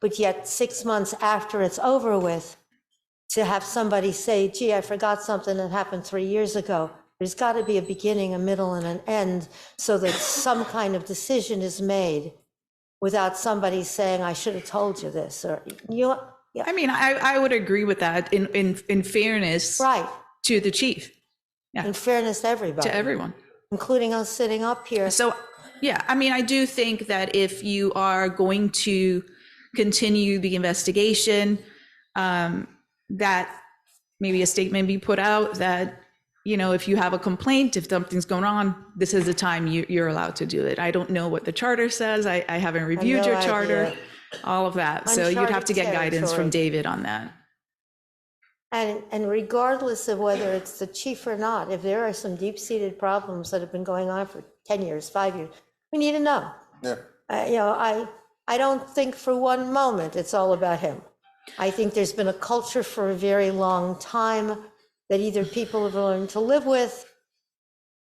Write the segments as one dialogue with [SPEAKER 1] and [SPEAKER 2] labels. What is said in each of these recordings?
[SPEAKER 1] but yet six months after it's over with, to have somebody say, gee, I forgot something that happened three years ago. There's got to be a beginning, a middle, and an end so that some kind of decision is made without somebody saying, I should have told you this, or you, yeah,
[SPEAKER 2] I mean, I, I would agree with that in, in, in fairness
[SPEAKER 1] right.
[SPEAKER 2] to the chief,
[SPEAKER 1] In fairness to everybody,
[SPEAKER 2] to everyone.
[SPEAKER 1] including us sitting up here.
[SPEAKER 2] So, yeah, I mean, I do think that if you are going to continue the investigation, um, that maybe a statement be put out that, you know, if you have a complaint, if something's going on, this is the time you, you're allowed to do it. I don't know what the charter says. I, I haven't reviewed your
[SPEAKER 1] no
[SPEAKER 2] charter,
[SPEAKER 1] idea.
[SPEAKER 2] all of that. So you'd have to
[SPEAKER 1] Uncharted
[SPEAKER 2] get guidance
[SPEAKER 1] territory.
[SPEAKER 2] from David on that.
[SPEAKER 1] And, and regardless of whether it's the chief or not, if there are some deep-seated problems that have been going on for 10 years, five years, we need to know.
[SPEAKER 3] Yeah.
[SPEAKER 1] Uh, You know, I, I don't think for one moment it's all about him. I think there's been a culture for a very long time that either people have learned to live with,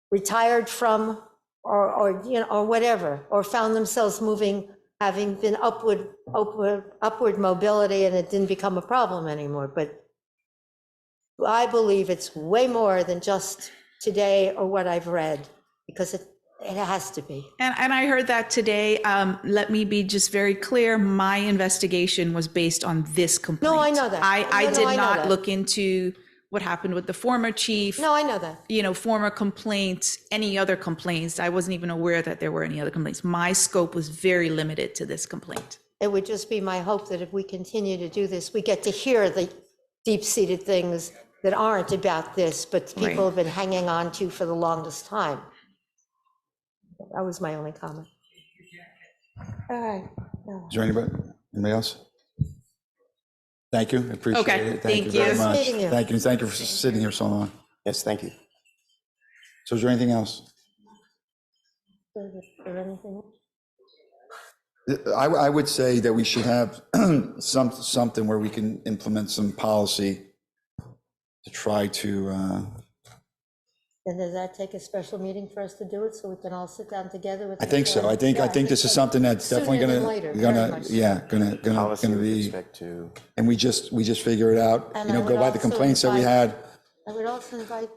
[SPEAKER 1] retired from, or, or, you know, or whatever, or found themselves moving, having been upward, upward, upward mobility, and it didn't become a problem anymore. But I believe it's way more than just today or what I've read, because it, it has to be.
[SPEAKER 2] And, and I heard that today. Um, let me be just very clear. My investigation was based on this complaint.
[SPEAKER 1] I know that.
[SPEAKER 2] I, I
[SPEAKER 1] No, no,
[SPEAKER 2] did
[SPEAKER 1] I know
[SPEAKER 2] not
[SPEAKER 1] that.
[SPEAKER 2] look into what happened with the former chief,
[SPEAKER 1] No, I know that.
[SPEAKER 2] you know, former complaints, any other complaints. I wasn't even aware that there were any other complaints. My scope was very limited to this complaint.
[SPEAKER 1] It would just be my hope that if we continue to do this, we get to hear the deep-seated things that aren't about this, but
[SPEAKER 2] Right.
[SPEAKER 1] people have been hanging on to for the longest time. That was my only comment. All right.
[SPEAKER 3] Is there anybody, anybody else? Thank you, I appreciate
[SPEAKER 2] Okay,
[SPEAKER 3] it.
[SPEAKER 2] thank you.
[SPEAKER 3] very
[SPEAKER 2] Nice
[SPEAKER 3] much.
[SPEAKER 1] meeting you.
[SPEAKER 3] Thank you, and thank you for sitting here so long.
[SPEAKER 4] Yes, thank you.
[SPEAKER 3] So is there anything else?
[SPEAKER 1] Is there anything?
[SPEAKER 3] I, I would say that we should have some, something where we can implement some policy to try to, uh,
[SPEAKER 1] Then does that take a special meeting for us to do it, so we can all sit down together with?
[SPEAKER 3] I think so. I think, I think this is something that's definitely
[SPEAKER 1] Sooner than
[SPEAKER 3] gonna,
[SPEAKER 1] later, very
[SPEAKER 3] gonna,
[SPEAKER 1] much so.
[SPEAKER 3] yeah, gonna, gonna,
[SPEAKER 4] Policy
[SPEAKER 3] gonna
[SPEAKER 4] with
[SPEAKER 3] be,
[SPEAKER 4] respect to,
[SPEAKER 3] and we just, we just figure it out,
[SPEAKER 1] And
[SPEAKER 3] you
[SPEAKER 1] I
[SPEAKER 3] know, go
[SPEAKER 1] would
[SPEAKER 3] by the
[SPEAKER 1] also
[SPEAKER 3] complaints that we
[SPEAKER 1] invite-
[SPEAKER 3] had.
[SPEAKER 1] I would also invite,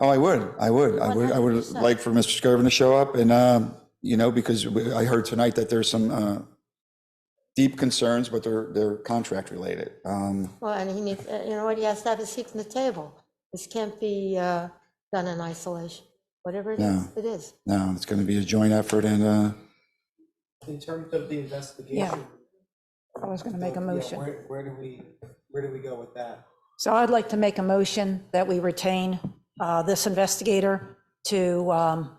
[SPEAKER 3] Oh, I would, I would, I would, I would
[SPEAKER 1] 100%.
[SPEAKER 3] like for Mr. Skirvin to show up and, um, you know, because we- I heard tonight that there's some, uh, deep concerns, but they're, they're contract related. Um,
[SPEAKER 1] well, and he needs, uh, you know what, he has to have a seat in the table. This can't be uh, done in isolation. Whatever it is,
[SPEAKER 3] No.
[SPEAKER 1] it is.
[SPEAKER 3] no, it's gonna be a joint effort and, uh,
[SPEAKER 5] In terms of the investigation.
[SPEAKER 6] I was going to make a
[SPEAKER 5] yeah,
[SPEAKER 6] motion.
[SPEAKER 5] Where, where do we, where do we go with that?
[SPEAKER 6] So I'd like to make a motion that we retain uh, this investigator to um,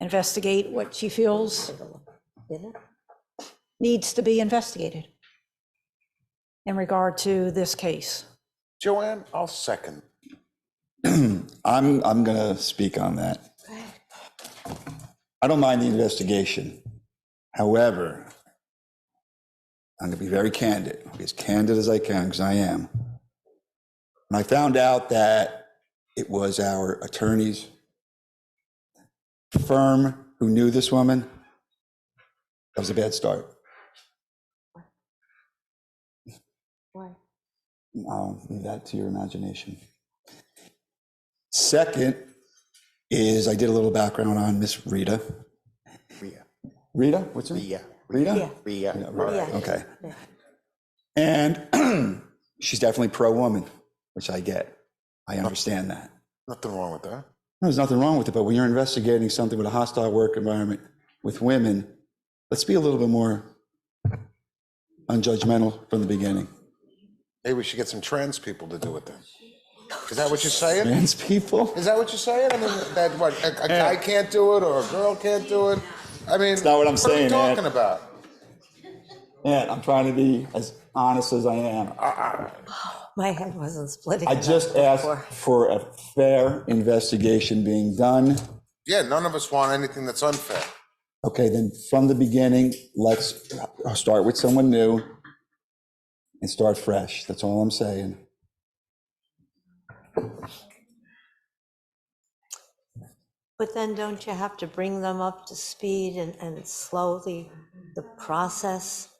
[SPEAKER 6] investigate what she feels
[SPEAKER 1] Didn't it?
[SPEAKER 6] needs to be investigated in regard to this case.
[SPEAKER 4] Joanne, I'll second.
[SPEAKER 3] I'm, I'm going to speak on that. I don't mind the investigation. However, I'm going to be very candid, as candid as I can, because I am. And I found out that it was our attorney's firm who knew this woman. That was a bad start.
[SPEAKER 1] Why?
[SPEAKER 3] I'll leave that to your imagination. Second is I did a little background on Miss Rita.
[SPEAKER 4] Rhea,
[SPEAKER 3] Rita, what's her name?
[SPEAKER 4] Rhea,
[SPEAKER 3] Rita?
[SPEAKER 4] Rhea.
[SPEAKER 3] Yeah, Rita,
[SPEAKER 1] Yeah.
[SPEAKER 3] Okay.
[SPEAKER 1] Yeah.
[SPEAKER 3] And she's definitely pro-woman, which I get. I understand that.
[SPEAKER 4] Nothing wrong with that.
[SPEAKER 3] There's nothing wrong with it, but when you're investigating something with a hostile work environment with women, let's be a little bit more unjudgmental from the beginning.
[SPEAKER 4] Maybe we should get some trans people to do it then. Is that what you're saying?
[SPEAKER 3] Trans people?
[SPEAKER 4] Is that what you're saying? I mean, that what, a, a guy can't do it or a girl can't do it? I mean,
[SPEAKER 3] not what I'm saying,
[SPEAKER 4] What are we
[SPEAKER 3] Ed.
[SPEAKER 4] talking about?
[SPEAKER 3] Yeah, I'm trying to be as honest as I am.
[SPEAKER 1] My head wasn't splitting.
[SPEAKER 3] I
[SPEAKER 1] enough
[SPEAKER 3] just asked
[SPEAKER 1] before.
[SPEAKER 3] for a fair investigation being done.
[SPEAKER 4] Yeah, none of us want anything that's unfair.
[SPEAKER 3] Okay, then from the beginning, let's start with someone new and start fresh. That's all I'm saying.
[SPEAKER 1] But then don't you have to bring them up to speed and, and slow the, the process?